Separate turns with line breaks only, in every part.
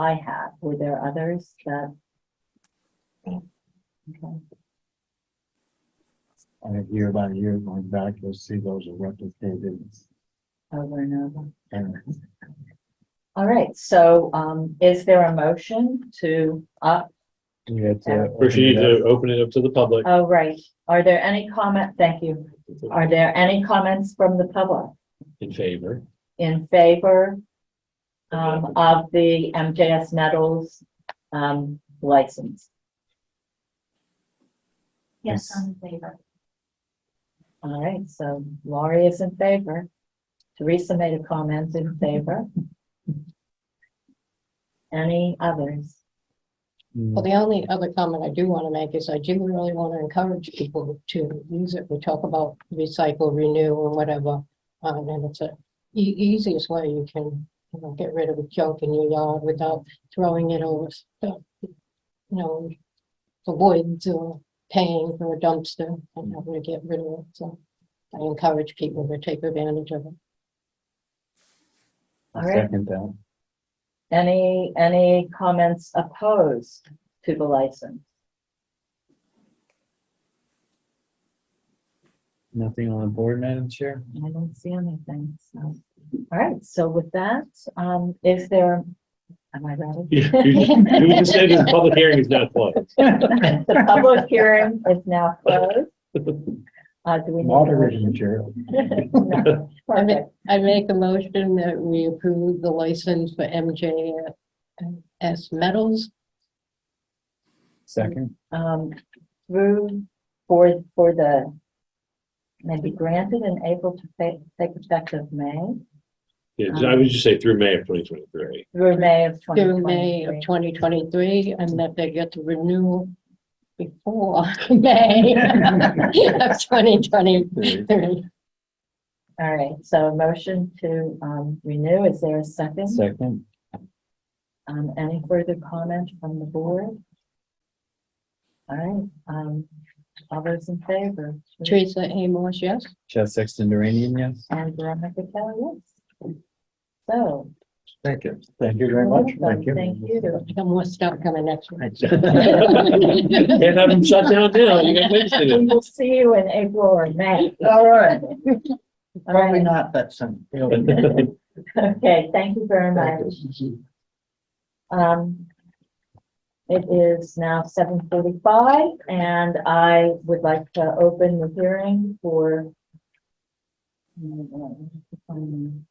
I have. Were there others that? Okay.
And year by year going back, you'll see those are replicated.
Over and over.
And
All right, so um, is there a motion to, uh,
we had to.
Yeah.
First, you need to open it up to the public.
oh, right, are there any comment, thank you. Are there any comments from the public
In favor.
in favor um, of the MJS Metals um, license?
Yes, I'm
in favor. All right, so Laurie is in favor. Teresa made a comment in favor. Any others?
Mm,
Well, the only other comment I do want to make is I do really want to encourage people to use it. We talk about recycle, renew and whatever. um, And it's a e- easiest way you can, you know, get rid of the junk in your yard without throwing it over stuff. You know, the woods or paying for a dumpster and having to get rid of it. So I encourage people to take advantage of it.
All right.
Second down.
Any, any comments opposed to the license?
Nothing on the board, Madam Chair?
I don't see anything, so. All right, so with that, um, is there, am I ready?
You you just said the public hearing is not closed.
The public hearing is now closed. Uh, do we? need a
Moderating
motion?
material.
No. Perfect.
I make a motion that we approve the license for MJS Metals
Second.
Um, through, for, for the, maybe granted in April to take, take effect of May,
Yeah, I would just say through May of twenty twenty-three.
through May of
through May
2023.
of 2023, and that they get the renewal before May of 2023.
All right, so a motion to um, renew, is there a second?
Second.
Um, Any further comment from the board? All right, um, all those in favor?
Teresa Amos, yes?
Chad Sexton Duranian, yes?
And Veronica Kelly, yes. So.
Thank you. Thank you very much.
welcome, Thank you.
I got more stuff coming next week.
Can't have them shut down now. You got wasted
We
it.
will see you in April or May.
All right.
All right,
not that soon.
okay, thank you very much. Um, it is now seven forty-five and I would like to open the hearing for um,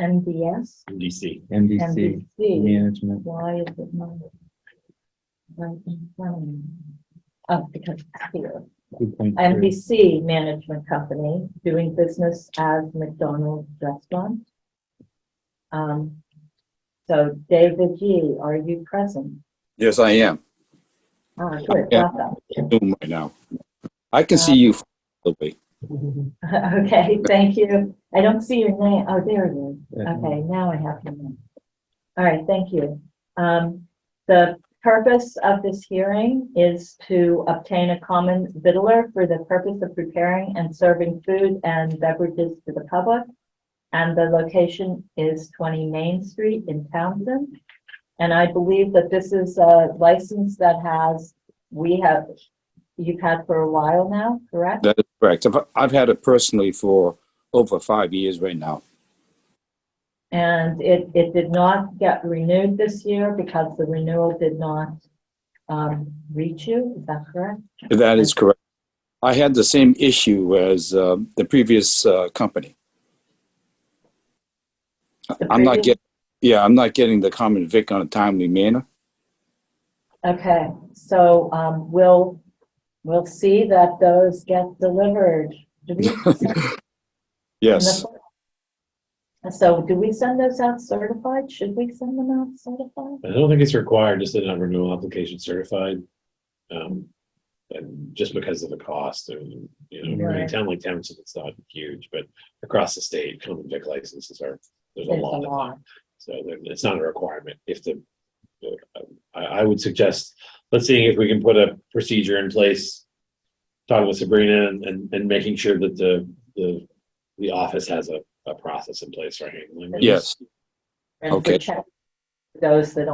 NBS,
DC.
NBC
NBC.
Management.
Why is it not? right in front of me? Oh, because it's here.
2.3.
NBC Management Company, doing business as McDonald's Restaurant. Um, so David G., are you present?
Yes, I am.
Ah, good,
Yeah.
welcome.
Zoom right now. I can see you. Absolutely.
Okay, thank you. I don't see your name. Oh, there it is.
Yeah.
Okay, now I have your name. All right, thank you. Um, the purpose of this hearing is to obtain a common vittler for the purpose of preparing and serving food and beverages to the public. And the location is twenty Main Street in Townsend. And I believe that this is a license that has, we have, you've had for a while now, correct?
That is correct. I've, I've had it personally for over five years right now.
And it, it did not get renewed this year because the renewal did not um, reach you, is that correct?
That is correct. I had the same issue as uh, the previous uh, company.
The
I'm not
previous-
getting, yeah, I'm not getting the common vic on a timely manner.
Okay, so um, we'll, we'll see that those get delivered. Do we send them
Yes,
out? So do we send those out certified? Should we send them out certified?
I don't think it's required to send out renewal application certified. Um, and just because of the cost and, you know, in a
Right.
town like Townsend, it's not huge, but across the state, common vic licenses are, there's a
There's
lot of them. So there- it's not a requirement if the, uh, I, I would suggest, let's see if we can put a procedure in place. Talking with Sabrina and, and, and making sure that the, the, the office has a, a process in place for handling. this.
yes.
And for
Okay.
check- Those that